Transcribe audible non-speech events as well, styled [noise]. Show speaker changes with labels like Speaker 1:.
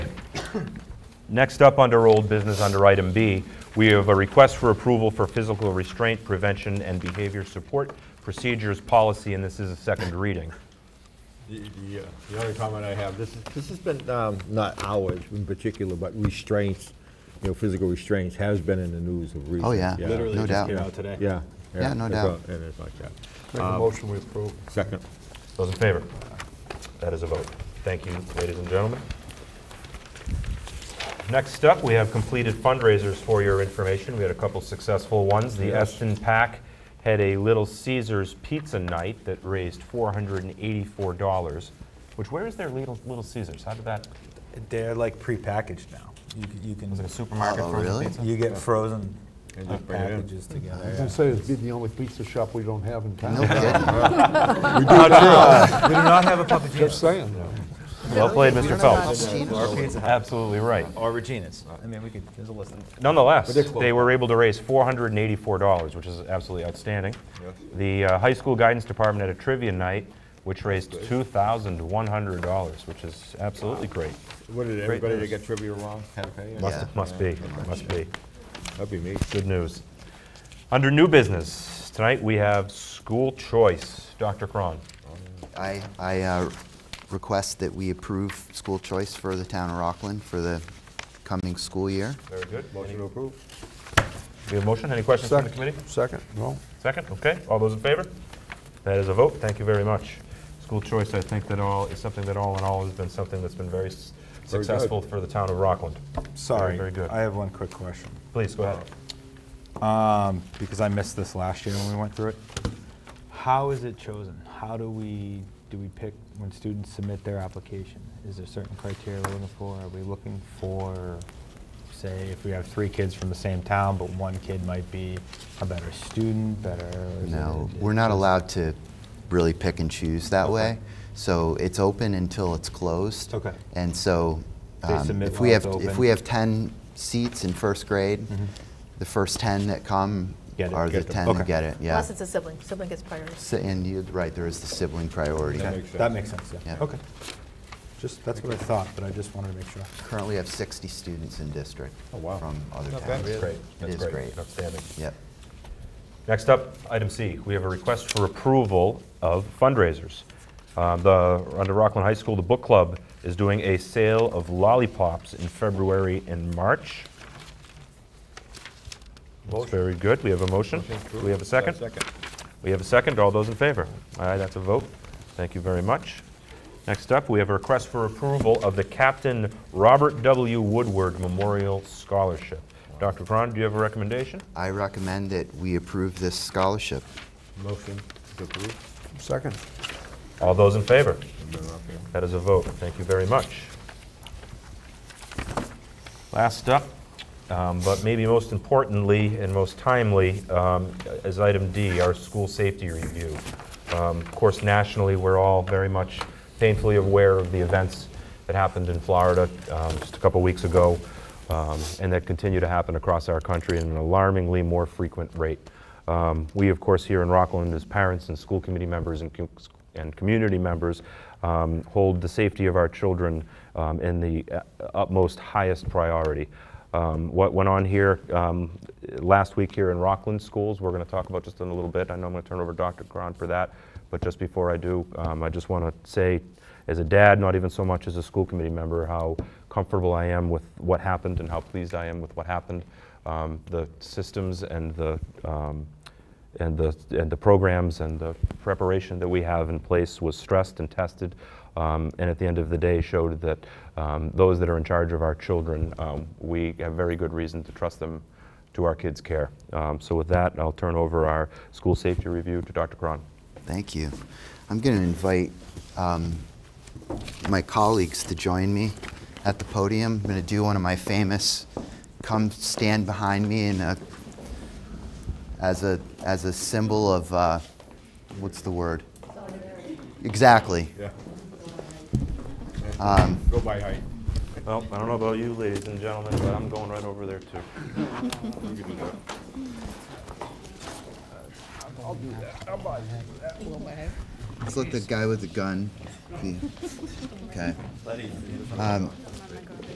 Speaker 1: Next up, under old business, under item B, we have a request for approval for physical restraint prevention and behavior support procedures policy, and this is a second reading.
Speaker 2: The- The uh, the only comment I have, this, is- this has been, um, not ours in particular, but restraints, you know, physical restraints has been in the news of recent.
Speaker 3: yeah, Literally no just
Speaker 2: Literally
Speaker 3: doubt. came
Speaker 2: out today. Yeah.
Speaker 3: Yeah, no
Speaker 2: it's
Speaker 3: doubt.
Speaker 2: all- It is like that. Um,
Speaker 4: Make a motion we approve.
Speaker 2: Second.
Speaker 1: Those in favor? That is a vote. Thank you, ladies and gentlemen. Next up, we have completed fundraisers for your information. We had a couple successful ones. The
Speaker 2: Yes.
Speaker 1: Eston Pack had a Little Caesars Pizza Night that raised $484, which, where is their Little Little Caesars? How did that,
Speaker 4: They're like prepackaged now. You c- You
Speaker 1: was it a
Speaker 4: can,
Speaker 1: supermarket
Speaker 3: Oh,
Speaker 1: frozen
Speaker 3: really?
Speaker 1: pizza?
Speaker 4: you get frozen
Speaker 2: And
Speaker 4: uh,
Speaker 2: just bring it in.
Speaker 4: packages together.
Speaker 5: I was gonna say, it'd be the only pizza shop we don't have in
Speaker 3: No
Speaker 5: town.
Speaker 3: kidding.
Speaker 4: We do not have a Papa
Speaker 5: Just saying.
Speaker 1: Well played, Mr. Phelps.
Speaker 4: Gino's.
Speaker 1: Absolutely right.
Speaker 4: Or Regina's. I mean, we could, there's a list.
Speaker 1: Nonetheless,
Speaker 2: they're close.
Speaker 1: they were able to raise $484, which is absolutely outstanding.
Speaker 2: Yes.
Speaker 1: The uh, high school guidance department had a trivia night, which raised $2,100, which is absolutely great.
Speaker 2: What did
Speaker 1: Great
Speaker 2: everybody that
Speaker 1: news.
Speaker 2: got trivia wrong had to pay?
Speaker 3: Must- Yeah.
Speaker 1: Must be, must be.
Speaker 2: That'd be me.
Speaker 1: Good news. Under new business, tonight we have school choice. Dr. Cron.
Speaker 3: I, I uh, request that we approve school choice for the town of Rockland for the coming school year.
Speaker 1: Very good.
Speaker 2: Motion to approve.
Speaker 1: We have a motion. Any questions from the committee?
Speaker 5: Second, no?
Speaker 1: Second, okay. All those in favor? That is a vote. Thank you very much. School choice, I think that all, is something that all in all has been something that's been very s-
Speaker 2: Very good.
Speaker 1: successful for the town of Rockland.
Speaker 4: Sorry,
Speaker 1: very good.
Speaker 4: I have one quick question.
Speaker 1: Please, go ahead.
Speaker 4: Um, Because I missed this last year when we went through it. How is it chosen? How do we, do we pick when students submit their application? Is there certain criteria we're looking for? Are we looking for, say, if we have three kids from the same town, but one kid might be a better student, better? is it-
Speaker 3: No,
Speaker 4: it-
Speaker 3: we're not allowed to really pick and choose that way. So it's open until it's closed.
Speaker 4: Okay.
Speaker 3: And so
Speaker 4: They
Speaker 3: um,
Speaker 4: submit
Speaker 3: if we
Speaker 4: while
Speaker 3: have,
Speaker 4: it's
Speaker 3: if
Speaker 4: open. Mm-hmm.
Speaker 3: we have 10 seats in first grade, the first 10 that come
Speaker 4: Get it,
Speaker 3: are the
Speaker 4: get them.
Speaker 3: 10 that
Speaker 4: Okay.
Speaker 3: get it, yeah.
Speaker 6: Unless it's a sibling, sibling gets priority.
Speaker 3: So- And you're right, there is the sibling priority.
Speaker 2: That
Speaker 4: Okay,
Speaker 2: makes
Speaker 4: That
Speaker 2: sense.
Speaker 4: makes sense, yeah.
Speaker 3: Yeah.
Speaker 4: Okay. Just, that's what I thought, but I just wanted to make sure.
Speaker 3: Currently have 60 students in district
Speaker 2: Oh, wow.
Speaker 3: from other
Speaker 2: Not bad.
Speaker 3: towns.
Speaker 2: That's
Speaker 1: Great.
Speaker 3: It
Speaker 1: That's
Speaker 3: is great.
Speaker 1: Outstanding.
Speaker 3: Yep.
Speaker 1: Next up, item C, we have a request for approval of fundraisers. Uh, The, under Rockland High School, the book club is doing a sale of lollipops in February and March. That's very good. We have a motion. Do we have a second?
Speaker 2: Second.
Speaker 1: We have a second. All those in favor? Aye, that's a vote. Thank you very much. Next up, we have a request for approval of the Captain Robert W. Woodward Memorial Scholarship. Dr. Cron, do you have a recommendation?
Speaker 3: I recommend that we approve this scholarship.
Speaker 2: Motion to approve.
Speaker 5: Second.
Speaker 1: All those in favor?
Speaker 2: Okay.
Speaker 1: That is a vote. Thank you very much. Last up, um, but maybe most importantly and most timely, um, is item D, our school safety review. Um, Of course, nationally, we're all very much painfully aware of the events that happened in Florida um, just a couple weeks ago, um, and that continue to happen across our country at an alarmingly more frequent rate. Um, We, of course, here in Rockland, as parents and school committee members and co- and community members um, hold the safety of our children um, in the uh, utmost highest priority. Um, What went on here um, last week here in Rockland Schools, we're going to talk about just in a little bit. I know I'm going to turn over to Dr. Cron for that, but just before I do, um, I just want to say, as a dad, not even so much as a school committee member, how comfortable I am with what happened and how pleased I am with what happened. Um, The systems and the um, and the, and the programs and the preparation that we have in place was stressed and tested, um, and at the end of the day showed that um, those that are in charge of our children, um, we have very good reason to trust them to our kids' care. Um, so with that, I'll turn over our school safety review to Dr. Cron.
Speaker 3: Thank you. I'm going to invite um, my colleagues to join me at the podium. I'm going to do one of my famous come stand behind me in a, as, a, as a symbol of uh, what's the word? Exactly.
Speaker 2: Yeah. Go by height.
Speaker 1: Well, I don't know about you, ladies and gentlemen, but I'm going right over there too.
Speaker 2: [laughs] You can do that.
Speaker 3: It's like the guy with the gun. The- Okay. Um,